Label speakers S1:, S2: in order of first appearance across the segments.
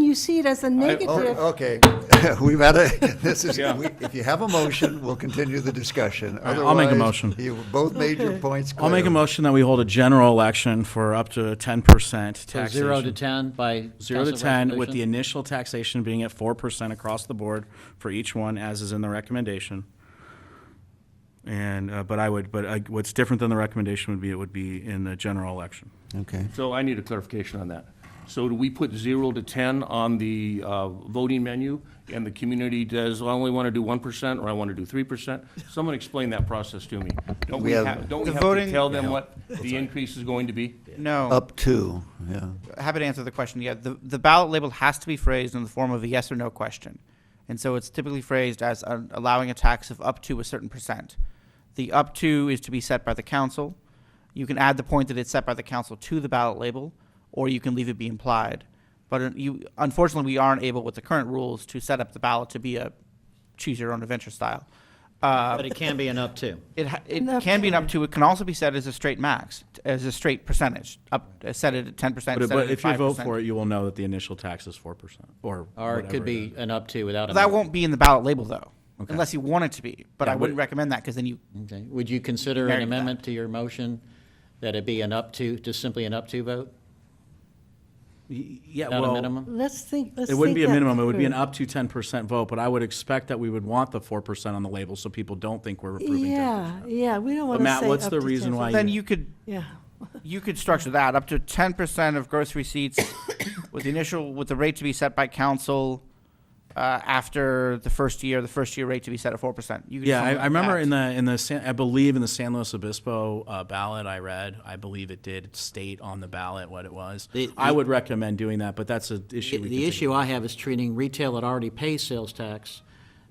S1: you see it as a negative.
S2: Oh, Okay, we've had a, this is,
S3: Yeah.
S2: we- if you have a motion, we'll continue the discussion.
S3: right, I'll make a
S2: Otherwise,
S3: motion.
S2: You both made your points clear.
S3: I'll make a motion that we hold a general election for up to ten percent
S4: So
S3: taxation.
S4: zero to 10 by
S3: Zero to
S4: council
S3: ten, with the
S4: resolution?
S3: initial taxation being at four percent across the board for each one, as is in the recommendation. And, uh, but I would, but I, what's different than the recommendation would be, it would be in the general election.
S2: Okay.
S5: So I need a clarification on that. So do we put zero to 10 on the uh, voting menu, and the community does, I only want to do 1%, or I want to do 3%? Someone explain that process to me. Don't we
S2: We have-
S5: have, don't we
S6: The
S5: have to
S6: voting-
S5: tell them what the increase is going to be?
S6: No,
S2: Up to, yeah.
S6: happy to answer the question. Yeah, the, the ballot label has to be phrased in the form of a yes or no question. And so it's typically phrased as uh, allowing a tax of up to a certain percent. The up to is to be set by the council. You can add the point that it's set by the council to the ballot label, or you can leave it be implied. But uh, you, unfortunately, we aren't able with the current rules to set up the ballot to be a choose your own adventure style. Uh,
S4: But it can be an up to.
S6: It, ha- it
S1: Enough
S6: can be an
S1: time.
S6: up to, it can also be set as a straight max, t- as a straight percentage, up, uh, set it at ten percent,
S3: But
S6: set
S3: but
S6: it at
S3: if you
S6: five
S3: vote for
S6: percent.
S3: it, you will know that the initial tax is four percent, or
S4: Or it could
S3: whatever
S4: be
S3: is.
S4: an up to without a.
S6: That
S4: memo.
S6: won't be in the ballot label though,
S3: Okay.
S6: unless you want it to be, but
S3: Yeah,
S6: I
S3: but-
S6: wouldn't recommend that, because then you,
S4: Okay. Would you consider
S6: Married
S4: an
S6: to that.
S4: amendment to your motion that it be an up to, just simply an up to vote?
S3: Y- Yeah,
S4: Not a
S3: well,
S4: minimum?
S1: Let's think, let's
S3: It wouldn't
S1: think
S3: be a
S1: that
S3: minimum, it would be an
S1: through.
S3: up to ten percent vote, but I would expect that we would want the four percent on the label so people don't think we're approving ten
S1: Yeah,
S3: percent.
S1: yeah, we don't want to say
S3: Matt, what's
S1: up
S3: the
S1: to
S3: reason
S1: 10%.
S3: why
S6: then
S3: you-
S6: you could,
S1: Yeah,
S6: you could structure that up to ten percent of gross receipts with the initial, with the rate to be set by council, uh, after the first year, the first year rate to be set at four percent.
S3: Yeah, I, I remember in the, in the, San- I believe in the San Luis Obispo uh, ballot I read, I believe it did state on the ballot what it was.
S4: The-
S3: I
S4: the-
S3: would recommend doing that, but that's an issue we could
S4: The
S3: take
S4: issue I have is treating retail that already pays sales tax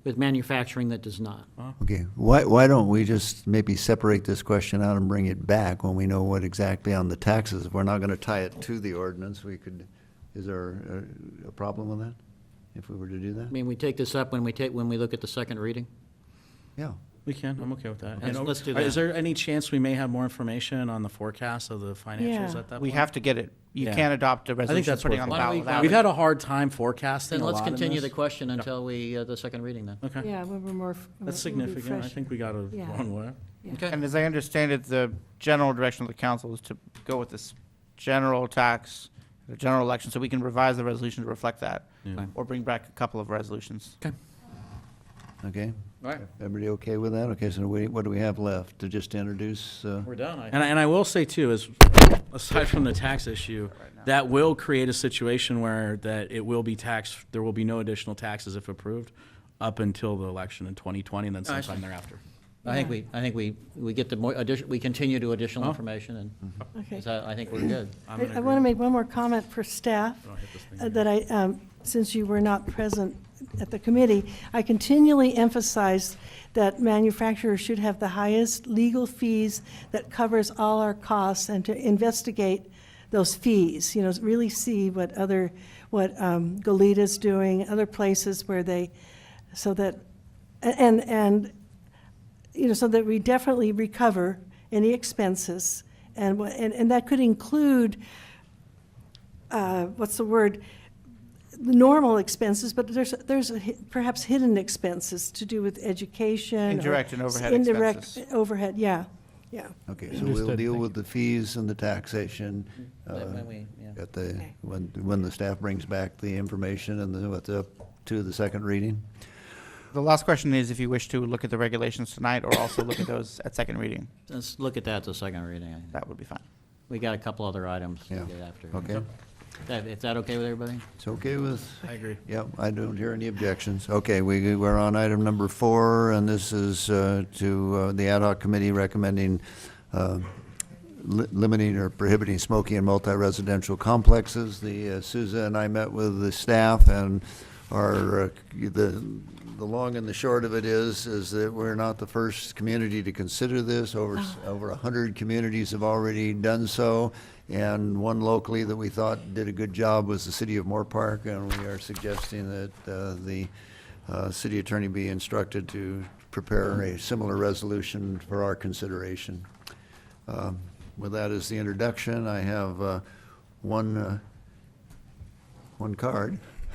S4: with manufacturing that does not.
S2: Okay, why, why don't we just maybe separate this question out and bring it back when we know what exactly on the taxes? If we're not gonna tie it to the ordinance, we could, is there a, a problem with that? If we were to do
S4: I
S2: that?
S4: mean, we take this up when we take, when we look at the second reading?
S2: Yeah.
S3: We can, I'm okay with that.
S4: Let's-
S3: And,
S4: let's do
S3: uh, Is
S4: that.
S3: there any chance we may have more information on the forecast of the
S1: Yeah.
S3: financials at that point?
S6: We have to get it, you
S3: Yeah.
S6: can't adopt a
S3: I think
S6: resolution
S3: that's
S6: putting on the
S3: worth it.
S4: Why don't we-
S6: ballot without
S3: We've
S6: it.
S3: had a hard time forecasting
S4: Then
S3: a
S4: let's
S3: lot in
S4: continue
S3: this.
S4: the question until we, uh, the second reading then.
S3: Okay,
S1: yeah, we were more. f- we'll be
S3: that's significant, I
S1: fresh.
S3: think we got a
S1: Yeah.
S3: one way.
S4: Okay.
S6: And as I understand it, the general direction of the council is to go with this general tax, the general election, so we can revise the resolution to reflect that.
S3: Yeah.
S6: Or bring back a couple of resolutions.
S2: Okay,
S4: All right,
S2: everybody okay with that? Okay, so we, what do we have left to just introduce, uh?
S4: we're done. I-
S3: And I, and I will say too, is aside from the tax issue, that will create a situation where that it will be taxed, there will be no additional taxes if approved up until the election in 2020 and then
S4: I
S3: sometime thereafter.
S4: I think we, I think we, we get the more, addition- we continue to additional
S3: Huh?
S4: information and
S1: Okay.
S4: so I think we're good.
S3: I'm
S1: I-
S3: in
S1: I want to
S3: agreement.
S1: make one more comment for staff, uh, that I, um, since you were not present at the committee, I continually emphasize that manufacturers should have the highest legal fees that covers all our costs, and to investigate those fees, you know, really see what other, what um, Goleta's doing, other places where they, so that, a- and, and you know, so that we definitely recover any expenses. And, wha- and, and that could include, uh, what's the word? Normal expenses, but there's, there's a hi- perhaps hidden expenses to do with education. or
S6: Indirect and overhead
S1: Indirect
S6: expenses.
S1: overhead, yeah, yeah.
S2: Okay, so we'll deal with the fees and the taxation. uh,
S4: But when we- yeah.
S2: At the,
S1: Okay.
S2: when, when the staff brings back the information and then with the, to the second reading.
S6: The last question is if you wish to look at the regulations tonight or also look at those at second reading,
S4: Let's look at that at the second reading. I-
S6: that would be fine.
S4: We got a couple other items to
S2: Yeah.
S4: get after.
S2: Okay,
S4: That- Is that okay with everybody?
S2: it's okay with,
S3: I agree.
S2: yeah, I don't hear any objections. Okay, we, we're on item number four, and this is uh, to uh, the ad hoc committee recommending uh, li- limiting or prohibiting smoking in multi-residential complexes. The, uh, Souza and I met with the staff and our, uh, the, the long and the short of it is, is that we're not the first community to consider this. Over, s- over a hundred communities have already done so. And one locally that we thought did a good job was the city of Moore Park, and we are suggesting that, uh, the, uh, city attorney be instructed to prepare a similar resolution for our consideration. Um, With that as the introduction, I have uh, one, uh, one card.